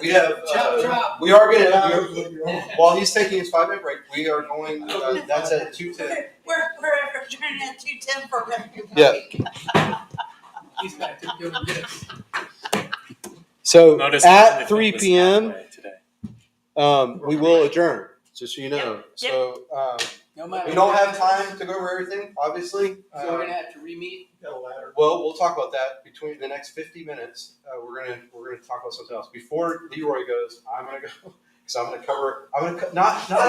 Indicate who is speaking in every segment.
Speaker 1: We have,
Speaker 2: Chop,
Speaker 1: uh,
Speaker 2: chop.
Speaker 1: we are gonna, while he's taking his five minute break, we are going, uh, that's at two ten.
Speaker 3: We're, we're we're turning at two ten for revenue.
Speaker 1: Yeah.
Speaker 2: He's back to doing this.
Speaker 1: So
Speaker 4: Notice that
Speaker 1: at
Speaker 4: it
Speaker 1: three
Speaker 4: was
Speaker 1: P M,
Speaker 4: that way today.
Speaker 1: um, we will adjourn, just so you know.
Speaker 3: Yeah, yeah.
Speaker 1: So, um,
Speaker 2: No matter.
Speaker 1: we don't have time to go over everything, obviously.
Speaker 2: So we're
Speaker 1: Um,
Speaker 2: gonna have to re-meet.
Speaker 1: Well, we'll talk about that between the next fifty minutes. Uh, we're gonna we're gonna talk about something else. Before Leroy goes, I'm gonna go because I'm gonna cover. I'm gonna co- not not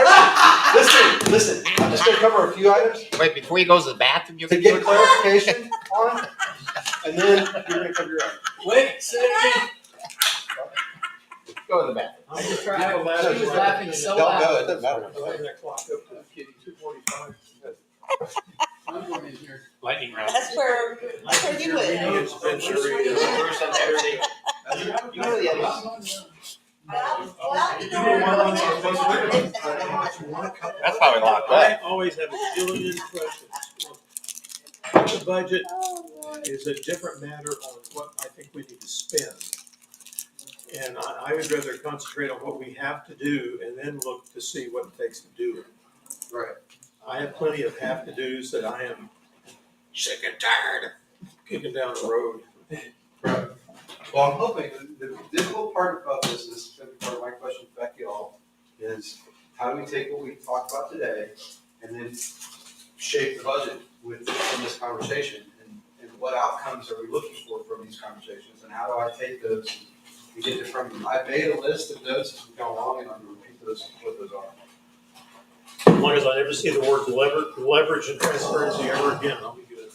Speaker 1: everything. listen, listen. I'm just gonna cover a few items
Speaker 5: Wait, before he goes to the bathroom, you
Speaker 1: to
Speaker 5: can
Speaker 1: get
Speaker 5: do it.
Speaker 1: clarification on, and then you're gonna cover your own.
Speaker 2: Wait, say it again.
Speaker 5: Go to the bathroom.
Speaker 6: I'm just
Speaker 2: trying to-
Speaker 1: She was
Speaker 2: laughing so
Speaker 1: Don't
Speaker 2: loud.
Speaker 1: go. It doesn't matter.
Speaker 6: Eleven o'clock up to two forty-five.
Speaker 2: I'm going in here.
Speaker 4: Lightning round.
Speaker 3: That's where, that's where you live.
Speaker 1: You know the others.
Speaker 3: Well, well, you
Speaker 6: You don't
Speaker 3: know,
Speaker 6: want
Speaker 3: we're
Speaker 6: to-
Speaker 3: going
Speaker 4: That's why we locked
Speaker 6: I
Speaker 4: up.
Speaker 6: always have a million questions. The budget is a different matter on what I think we need to spend. And I, I would rather concentrate on what we have to do and then look to see what it takes to do it.
Speaker 1: Right.
Speaker 6: I have plenty of have to dos that I am sick and tired of kicking down the road.
Speaker 1: Well, I'm hoping that the difficult part about this is gonna be part of my question to Becky all is how do we take what we talked about today and then shape the budget with from this conversation and, and what outcomes are we looking for from these conversations and how do I take those and get it from them? I made a list of those as we go along and I'm gonna repeat those what those are.
Speaker 6: As long as I never see the word lever, leverage and transparency ever again, I'll be good.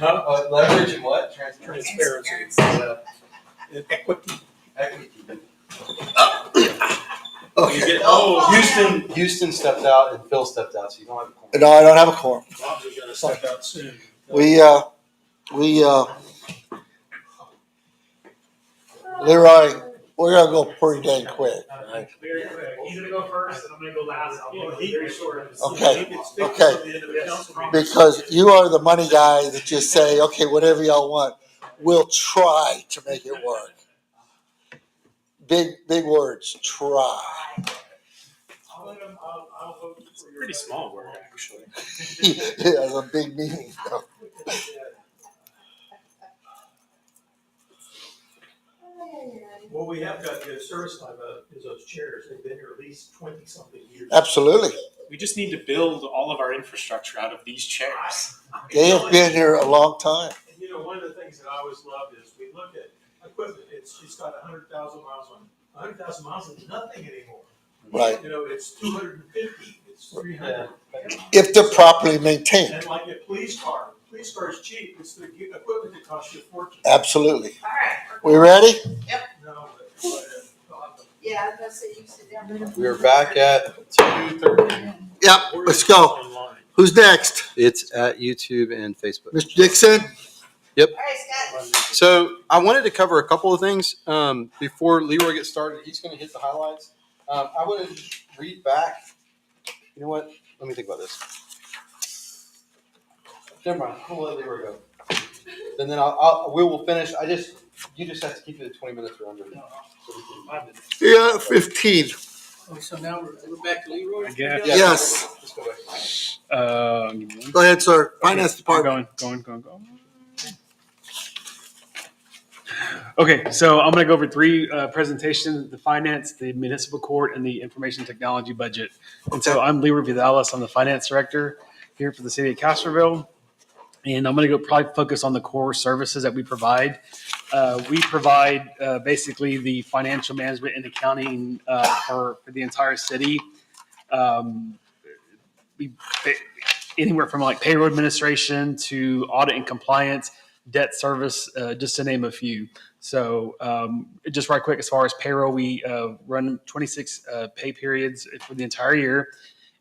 Speaker 1: Uh, leverage and what? Transparency.
Speaker 6: Transparency.
Speaker 1: Uh,
Speaker 6: Equity.
Speaker 1: equity.
Speaker 6: You get, oh,
Speaker 1: Houston, Houston stepped out and Phil stepped out, so you don't have a quorum.
Speaker 7: No, I don't have a quorum.
Speaker 6: Bob's gonna step out soon.
Speaker 7: We, uh, we, uh, Leroy, we're gonna go pretty dang quick.
Speaker 8: Very quick. He's gonna go first, and I'm gonna go last. I'll go very short.
Speaker 7: Okay,
Speaker 6: He can stick
Speaker 7: okay.
Speaker 6: till the end of the council meeting.
Speaker 7: Because you are the money guy that just say, okay, whatever y'all want, we'll try to make it work. Big, big words, try.
Speaker 8: I'll let him, I'll, I'll vote
Speaker 4: It's
Speaker 8: for
Speaker 4: a
Speaker 8: your.
Speaker 4: pretty small word, actually.
Speaker 7: It was a big meeting. though.
Speaker 6: What we have got to do service time uh, is those chairs. They've been here at least twenty something years.
Speaker 7: Absolutely.
Speaker 4: We just need to build all of our infrastructure out of these chairs.
Speaker 7: They have been here a long time.
Speaker 6: And you know, one of the things that I always loved is we look at equipment. It's, she's got a hundred thousand miles on, a hundred thousand miles is nothing anymore.
Speaker 7: Right.
Speaker 6: You know, it's two hundred and fifty, it's three hundred.
Speaker 7: If they're properly maintained,
Speaker 6: And like a police car, police car is cheap. It's the ge- equipment that costs you a fortune.
Speaker 7: absolutely.
Speaker 3: All right.
Speaker 7: We ready?
Speaker 6: No, but- but, uh,
Speaker 3: Yeah, I was gonna say you sit down.
Speaker 1: We are back at two thirty.
Speaker 7: Yep,
Speaker 6: Where
Speaker 7: let's
Speaker 6: is
Speaker 7: go.
Speaker 6: this online?
Speaker 7: Who's next?
Speaker 1: It's at YouTube and Facebook.
Speaker 7: Mr.
Speaker 3: All
Speaker 7: Dixon?
Speaker 3: right, Scott.
Speaker 1: So I wanted to cover a couple of things um, before Leroy gets started. He's going to hit the highlights. Um, I want to read back. You know what? Let me think about this. Never mind. We'll let Leroy go. And then I'll, I'll we will finish. I just you just have to keep it at twenty minutes or under.
Speaker 2: No, no,
Speaker 1: So we can-
Speaker 2: five minutes.
Speaker 7: Yeah, fifteen.
Speaker 2: Oh, so now we're, we're back to Leroy?
Speaker 4: I guess.
Speaker 1: Yeah,
Speaker 7: Yes.
Speaker 1: let's go back.
Speaker 4: Uh,
Speaker 7: Go ahead, sir. Finance Department.
Speaker 4: Going, going, going, going. Okay, so I'm going to go over three uh, presentations, the finance, the municipal court, and the information technology budget. And so I'm Leroy Vidalis, I'm the finance director here for the city of Castroville. And I'm going to go probably focus on the core services that we provide. Uh, We provide uh, basically the financial management and accounting uh, for, for the entire city. Um, We anywhere from like payroll administration to audit and compliance, debt service, uh, just to name a few. So um, just right quick, as far as payroll, we uh, run 26 uh, pay periods for the entire year.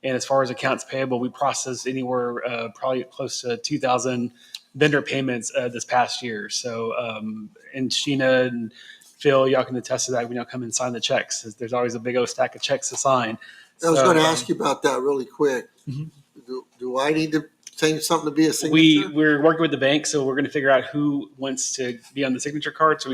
Speaker 4: And as far as accounts payable, we processed anywhere uh, probably close to 2,000 vendor payments uh, this past year. So um, and Sheena and Phil, y'all can attest to that when y'all come and sign the checks. There's always a big old stack of checks to sign.
Speaker 7: I was
Speaker 4: So,
Speaker 7: gonna
Speaker 4: um,
Speaker 7: ask you about that really quick.
Speaker 4: Mhm.
Speaker 7: Do, do I need to change something to be a
Speaker 4: We,
Speaker 7: signature?
Speaker 4: we're working with the bank, so we're gonna figure out who wants to be on the signature card, so we